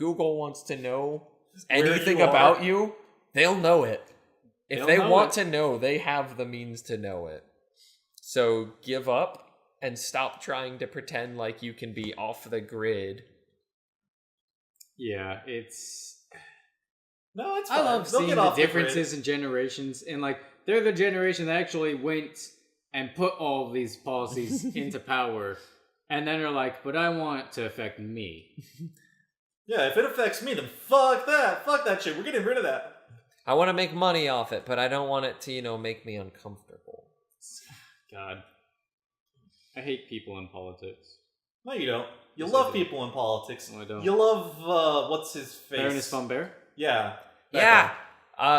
Google wants to know Where anything you are. about you, they'll know it. If They'll they know want it. to know, they have the means to know it. So give up and stop trying to pretend like you can be off the grid. Yeah, it's. No, it's fine. I love They'll seeing get the off grid. differences in generations, and like they're the generation that actually went and put all these policies into power, and then are like, "But I want to affect me." Yeah, if it affects me, then fuck that. Fuck that shit. We're getting rid of that. I want to make money off it, but I don't want it to, you know, make me uncomfortable. God, I hate people in politics. No, you don't. You Yes, I love do. people in politics. No, I don't. You love uh, what's his face? Baroness von Bear. Yeah. that yeah. guy.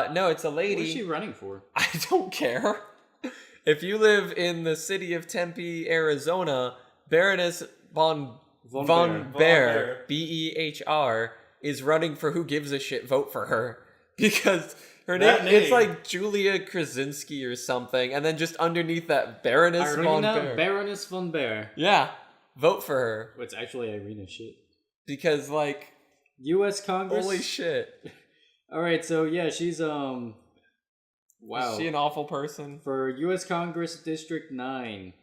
Uh, no, it's a What lady. is she running for? I don't care. If you live in the city of Tempe, Arizona, Baroness von Von Von, Baer. Bear, Von Baer. B E H R, is running for who gives a shit vote for her because her That name, it's name. like Julia Krasinski or something, and then just underneath that Baroness von Irina Bear. Baroness von Bear. yeah, vote for her It's actually Irina shit. because like U.S. Congress. holy shit, All right, so yeah, she's um. Wow. is she an awful person? for U.S. Congress District 9.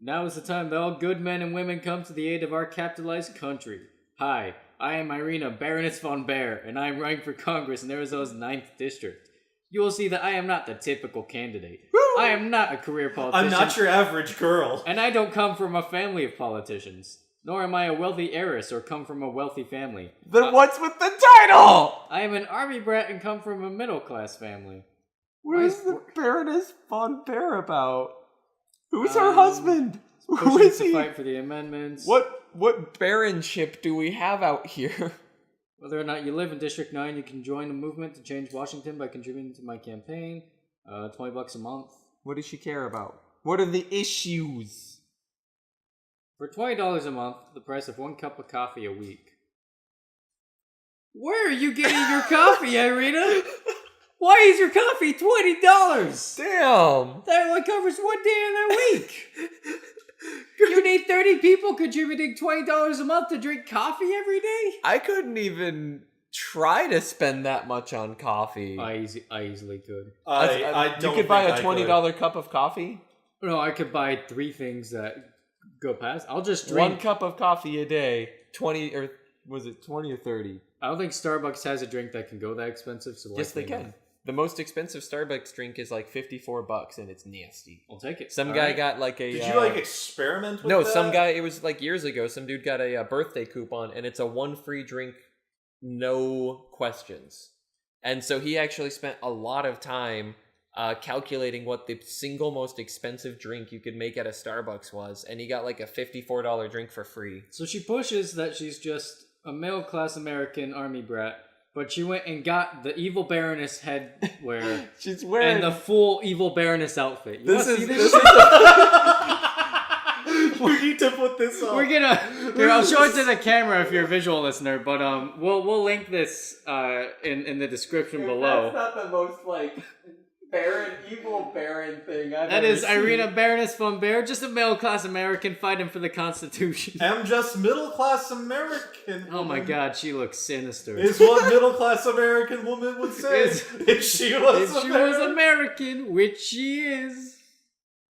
Now is the time that all good men and women come to the aid of our capitalized country. Hi, I am Irina Baroness von Baer, and I am running for Congress in Arizona's 9th District. You will see that I am not the typical candidate. I am not a career politician. I'm not your average girl. And I don't come from a family of politicians. Nor am I a wealthy heiress or come from a wealthy family. Then what's with the title? I am an army brat and come from a middle class family. What Why is is the Baroness von Bear about? Who's Um, her husband? Who Pushing is to he? fight for the amendments. What what baronship do we have out here? Whether or not you live in District 9, you can join the movement to change Washington by contributing to my campaign. Uh, 20 bucks a month. What does she care about? What are the issues? For $20 a month, the price of one cup of coffee a week. Where are you getting your coffee, Irina? Why is your coffee $20? Damn. That only covers one day in a week. you need 30 people contributing $20 a month to drink coffee every day? I couldn't even try to spend that much on coffee. uh, I, easy, I easily could. I, I, don't. you could buy think a I twenty dollar cup of coffee. No, I could buy three things that go past. I'll just drink. One cup of coffee a day, twenty or was it twenty or thirty? I don't think Starbucks has a drink that can go that expensive. So Yes, they likely can. not. The most expensive Starbucks drink is like fifty four bucks, and it's nasty. I'll take it. Some All guy right. got like a. Did uh, you like experiment with no, that? some guy. It was like years ago. Some dude got a, uh birthday coupon, and it's a one free drink, no questions. And so he actually spent a lot of time uh, calculating what the single most expensive drink you could make at a Starbucks was, and he got like a fifty-four dollar drink for free. So she pushes that she's just a middle class American army brat, but she went and got the evil Baroness headwear She's and the full evil Baroness outfit. You this wanna is see this this. is shit? we need to put this on. We're gonna. Here, I'll show it to the camera if you're a visual listener, but um, we'll we'll link this uh in in the description below. not the most like barren, evil barren thing I've That is Irina Baroness von Baer, just a middle class American fighting for the Constitution. I'm just middle class American. Oh my God, she looks sinister. Is what middle class American woman would say Is- if she was. if she was American. American, which she is.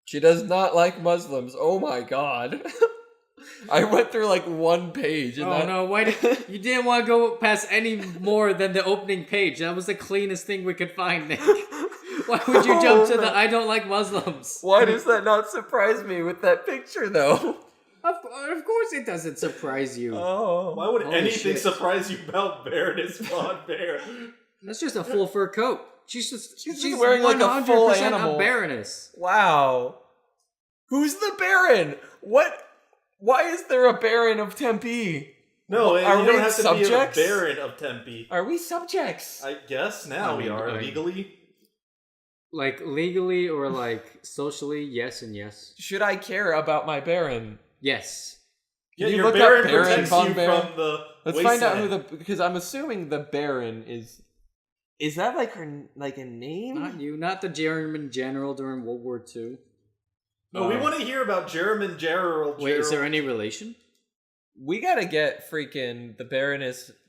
She does not like Muslims. Oh my god. I went through like one page and oh that, no, why did, you didn't want to go past any more than the opening page? That was the cleanest thing we could find, Nick. Why would you jump to Oh, the I don't like Muslims? Why does that not surprise me with that picture though? Of, of course, it doesn't surprise you. Oh. Why would Holy anything shit. surprise you about Baroness Von Bear? That's just a full fur coat. She's just She's she's, just wearing, like, a full 100% animal. baroness. Wow. Who's the Baron? What why is there a Baron of Tempe? No, Are you we don't have to subjects? be a Baron of Tempe. Are we subjects? I guess now I we mean, are I- legally. Like legally or like socially, yes and yes, Should I care about my Baron? yes. Yeah, you your look up Baron Baron protects Von you Bear? from the. Let's wasteland. find out who the because I'm assuming the Baron is is that like her like a name? Not you, not the German general during World War II. No, we Uh, want to hear about Jerem and Gerald. Wait, is there Gerald. any relation? we gotta get freaking the Baroness